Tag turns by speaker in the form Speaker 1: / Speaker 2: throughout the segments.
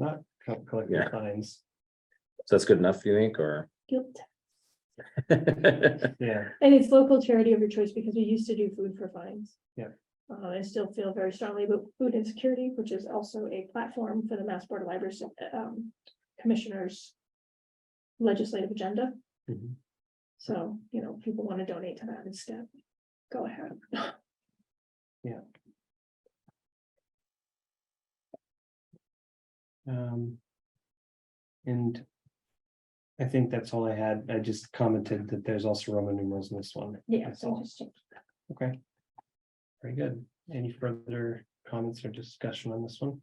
Speaker 1: not co- collecting
Speaker 2: Yeah.
Speaker 1: fines,
Speaker 2: So that's good enough, you think, or?
Speaker 3: Guilt.
Speaker 2: That's
Speaker 1: yeah,
Speaker 3: And it's local charity of your choice because we used to do food for fines.
Speaker 1: Yeah.
Speaker 3: Uh, I still feel very strongly about food insecurity, which is also a platform for the Mass Board of Libraries, um, commissioners. Legislative agenda.
Speaker 1: Mhm.
Speaker 3: So, you know, people want to donate to that instead. Go ahead.
Speaker 1: um. And. I think that's all I had, I just commented that there's also Roman numerals in this one.
Speaker 3: Yeah,
Speaker 1: That's
Speaker 3: so
Speaker 1: all.
Speaker 3: just,
Speaker 1: Okay. Very good. Any further comments or discussion on this one?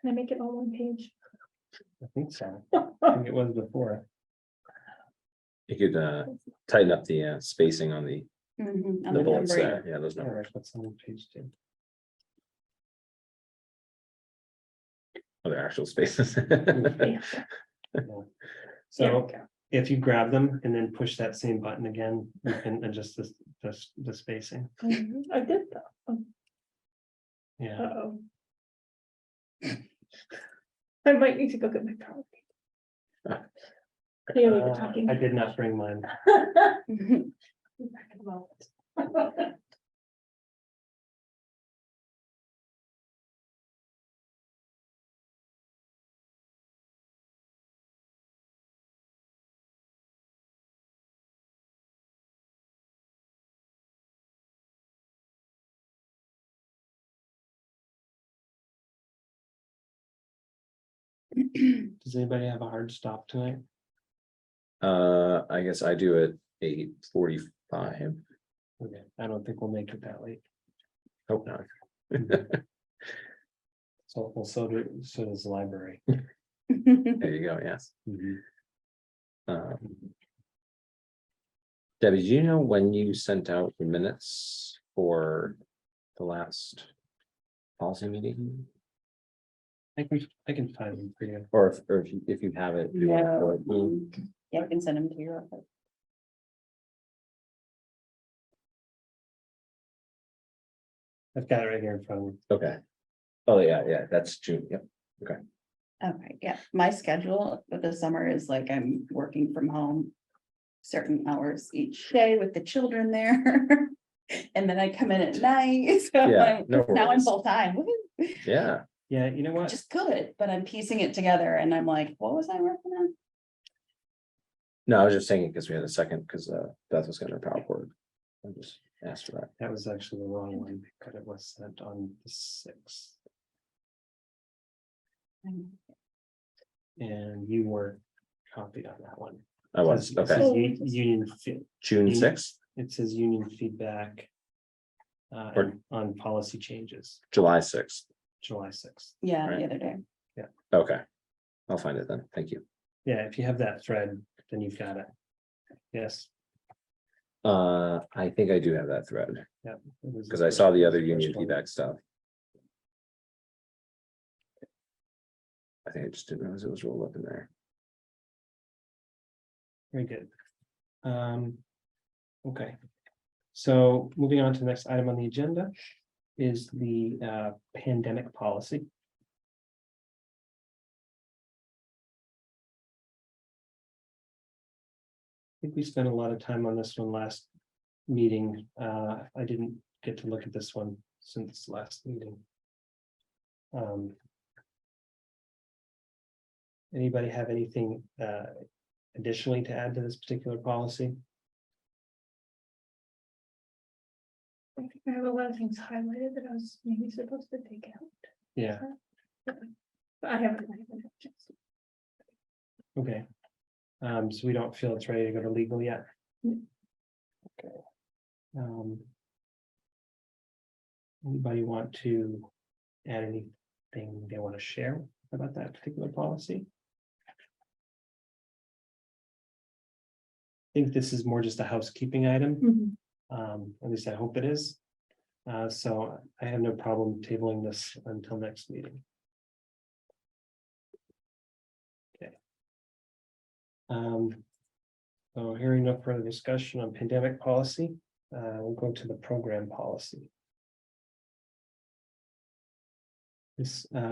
Speaker 3: can I make it all one page?
Speaker 1: I think so. I think it was before.
Speaker 2: You could uh tighten up the uh spacing on the
Speaker 4: Mhm, on
Speaker 2: the
Speaker 4: the
Speaker 2: bullets
Speaker 4: numbering.
Speaker 2: there, yeah, those
Speaker 1: All
Speaker 2: numbers.
Speaker 1: right, that's on page two.
Speaker 2: Other actual spaces.
Speaker 3: Yeah,
Speaker 1: No.
Speaker 3: there we
Speaker 1: So
Speaker 3: go.
Speaker 1: if you grab them and then push that same button again, you can adjust this, this, the spacing.
Speaker 3: Mhm, I did, that.
Speaker 1: Yeah,
Speaker 3: uh-oh. I might need to go get my power. Clearly
Speaker 1: Uh,
Speaker 3: we're talking.
Speaker 1: I did not bring mine.
Speaker 4: Mhm.
Speaker 1: Does anybody have a hard stop tonight?
Speaker 2: Uh, I guess I do at eight forty-five.
Speaker 1: Okay, I don't think we'll make it that late.
Speaker 2: Hope not.
Speaker 1: So, well, so do, so does the library.
Speaker 4: Mm-hmm.
Speaker 2: There you go, yes. Um, Debbie, do you know when you sent out the minutes for the last policy meeting?
Speaker 1: I can, I can find them for you.
Speaker 2: Or if, or if you- if you have it. do you wanna
Speaker 4: No,
Speaker 2: forward me?
Speaker 4: um, Yeah, I can send them to your office.
Speaker 1: I've got it right here in front of me.
Speaker 2: Okay. Oh, yeah, yeah, that's June, yep.
Speaker 4: Okay, yeah, my schedule for the summer is like I'm working from home. Certain hours each day with the children there. And then I come in at night, so
Speaker 2: Yeah,
Speaker 4: I'm-
Speaker 2: no
Speaker 4: now I'm
Speaker 2: worries.
Speaker 4: full time,
Speaker 2: Yeah,
Speaker 1: Yeah, you know what?
Speaker 4: just good, but I'm piecing it together and I'm like, what was I working on?
Speaker 2: no, I was just saying because we had a second, because uh Beth was gonna PowerPoint. I just asked for that.
Speaker 1: That was actually the wrong one, because it was sent on the sixth,
Speaker 4: I'm-
Speaker 1: and you were copied on that one.
Speaker 2: I was,
Speaker 1: It
Speaker 2: okay,
Speaker 1: says u- Union, fe-
Speaker 2: June sixth,
Speaker 1: it says union feedback. Uh,
Speaker 2: Or-
Speaker 1: and on policy changes,
Speaker 2: July sixth,
Speaker 1: July sixth.
Speaker 4: Yeah,
Speaker 2: Right.
Speaker 4: the other day.
Speaker 2: okay. I'll find it then, thank you.
Speaker 1: Yeah, if you have that thread, then you've got it. Yes.
Speaker 2: Uh, I think I do have that thread,
Speaker 1: it was
Speaker 2: because I saw the other
Speaker 1: first
Speaker 2: union
Speaker 1: one.
Speaker 2: feedback stuff. I think I just didn't realize it was rolled up in there.
Speaker 1: Very good. Um, okay. So moving on to the next item on the agenda is the uh, pandemic policy. I think we spent a lot of time on this one last meeting. Uh, I didn't get to look at this one since last meeting. Um. Anybody have anything uh additionally to add to this particular policy?
Speaker 3: I think I have a lot of things highlighted that I was maybe supposed to take out.
Speaker 1: Yeah,
Speaker 3: But I haven't. I haven't had a chance.
Speaker 1: okay. Um, so we don't feel it's ready to go to legal yet?
Speaker 3: No.
Speaker 1: Okay. Um. Anybody want to add anything they want to share about that particular policy? I Think this is more just a housekeeping item.
Speaker 3: Mhm.
Speaker 1: Um, at least I hope it is. Uh, so I have no problem tabling this until next meeting. Okay. Um. So hearing no further discussion on pandemic policy, uh, we'll go to the program policy. This uh